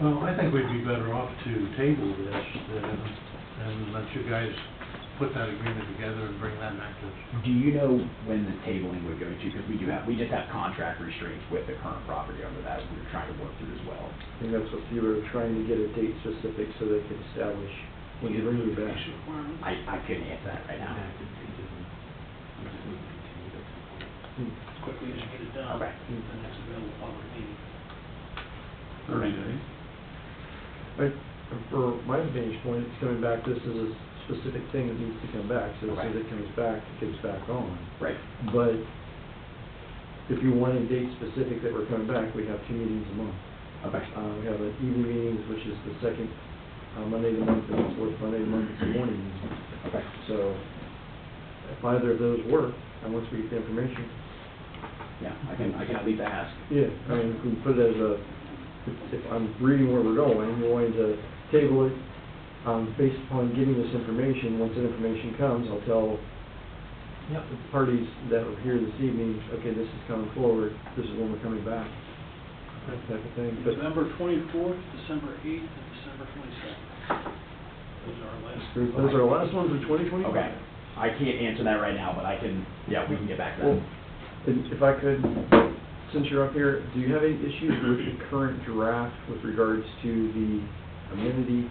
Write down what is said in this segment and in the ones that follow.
Well, I think we'd be better off to table this uh, and let you guys put that agreement together and bring that back to us. Do you know when the tabling would go to? Because we do have, we just have contract restraints with the current property owner that we're trying to work through as well. I think that's what you were trying to get a date specific so they could establish when you bring you back. I, I couldn't answer that right now. Hmm. quickly as you get it done. Okay. The next available public meeting. Thirty days. I- For my vantage point, it's coming back, this is a specific thing that needs to come back, so as soon as it comes back, it gets back on. Right. But if you want a date specific that we're coming back, we have two meetings a month. Okay. Uh, we have an evening meetings, which is the second uh, Monday of the month, and the fourth Monday of the month, is the morning meeting. Okay. So if either of those work, and once we get the information, Yeah, I can, I can at least ask. yeah, I mean, if we put it as a, if- if I'm reading where we're going, we're going to table it, um, based upon getting this information, once that information comes, I'll tell the parties that are here this evening, okay, this is coming forward, this is when we're coming back, that type of thing, but November twenty-fourth, December eighth, and December twenty-second. Those are our last. those are our last ones in twenty twenty-five. Okay. I can't answer that right now, but I can, yeah, we can get back to Well, that. and if I could, since you're up here, do you have any issues with the current draft with regards to the amenity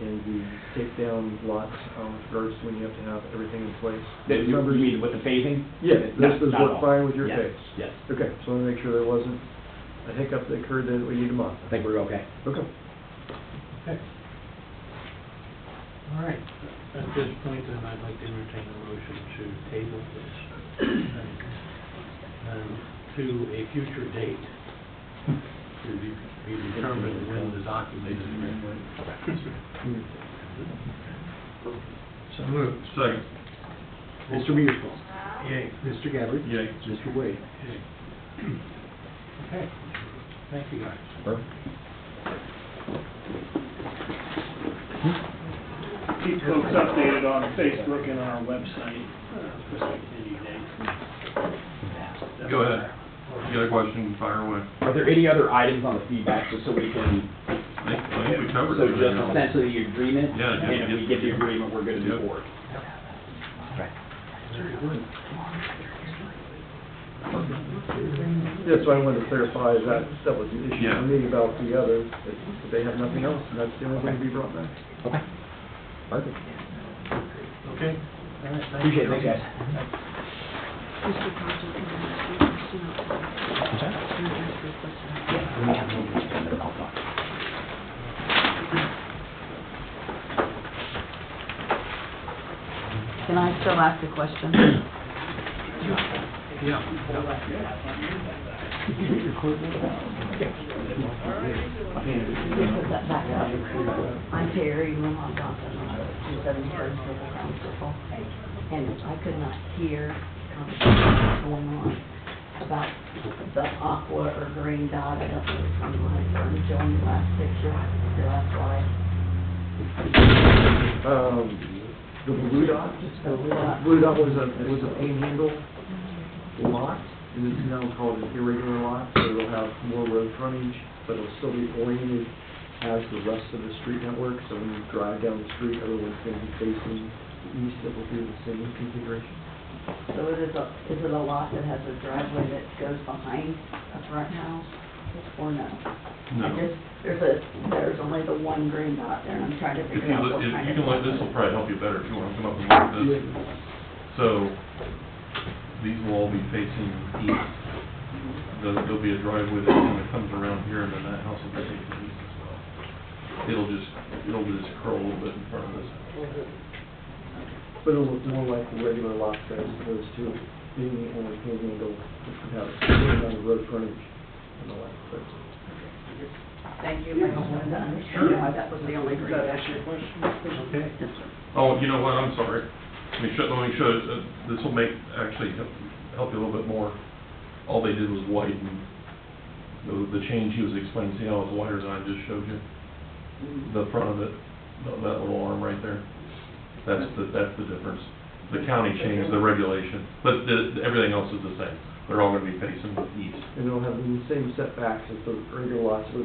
and the takedown lots, um, with regards to when you have to have everything in place? That You Numbers- you mean with the phasing? Yeah, No, this does not at all. work fine with your Yes, case? Yes. Okay, so I want to make sure there wasn't a hiccup that occurred that we need to modify. I think we're okay. Okay. Okay. All right, at this point, then I'd like to entertain a motion to table this um, to a future date. To be be determined when the document is ready. Hmm. So moved. Second. Mr. Mearsfall? Yay. Mr. Gabbard? Yay. Mr. Wade? Yay. Okay, thank you guys. Keep folks updated on Facebook and on our website, uh, especially any day. Go ahead. You got a question, fire away. Are there any other items on the feedback, just so we can? I think, I think we covered So just everything. essentially the agreement? Yeah, just- And if we get the agreement, we're good to move Yep. forward. Very good. Yeah, so I wanted to clarify that that was an issue Yeah. for me about the other, that they have nothing else, and that's the only thing to be brought back. Okay. Perfect. Okay. All right, thank Appreciate it, you. thanks, guys. Yeah, we have no agreement, but I'll talk. Can I still ask a question? Yeah. Put that back up. I'm Terry Wilmot-Johnson, I'm Southern Hartford Civil Council, and I could not hear conversations going on about the aqua or green dot that was from my, from Joan's last picture, your last slide. Um, the blue dot? The blue dot. Blue dot was a, it was a panhandle lot, and it's now called an irregular lot, so it'll have more road frontage, but it'll still be oriented as the rest of the street network, so when you drive down the street, everyone's gonna be facing east, it will be the same configuration. So it is a, is it a lot that has a driveway that goes behind a front house, or no? I No. just, there's a, there's only the one green dot there, and I'm trying to If figure you, out look- what if kind you of. can, look- this will probably help you better if you want to come up and look at this. So, these will all be facing east. There'll, there'll be a driveway that kind of comes around here, and then that house will be facing east as well. It'll just, it'll just curl a little bit in front of this. But it'll look more like the regular lot size as opposed to being the only panhandle, which would have a lot of road frontage and all that, but. Thank you, I just wanted to understand why that was the only green Does that dot. answer your question? Okay. Oh, you know what, I'm sorry. Let me show, let me show, uh, this will make, actually, help- help you a little bit more. All they did was widen, the, the change he was explaining, see how it's wider than I just showed you? The front of it, tha- that little arm right there. That's the, that's the difference. The county changed the regulation, but the, everything else is the same. They're all gonna be facing east. And it'll have the same setbacks as the regular lots, so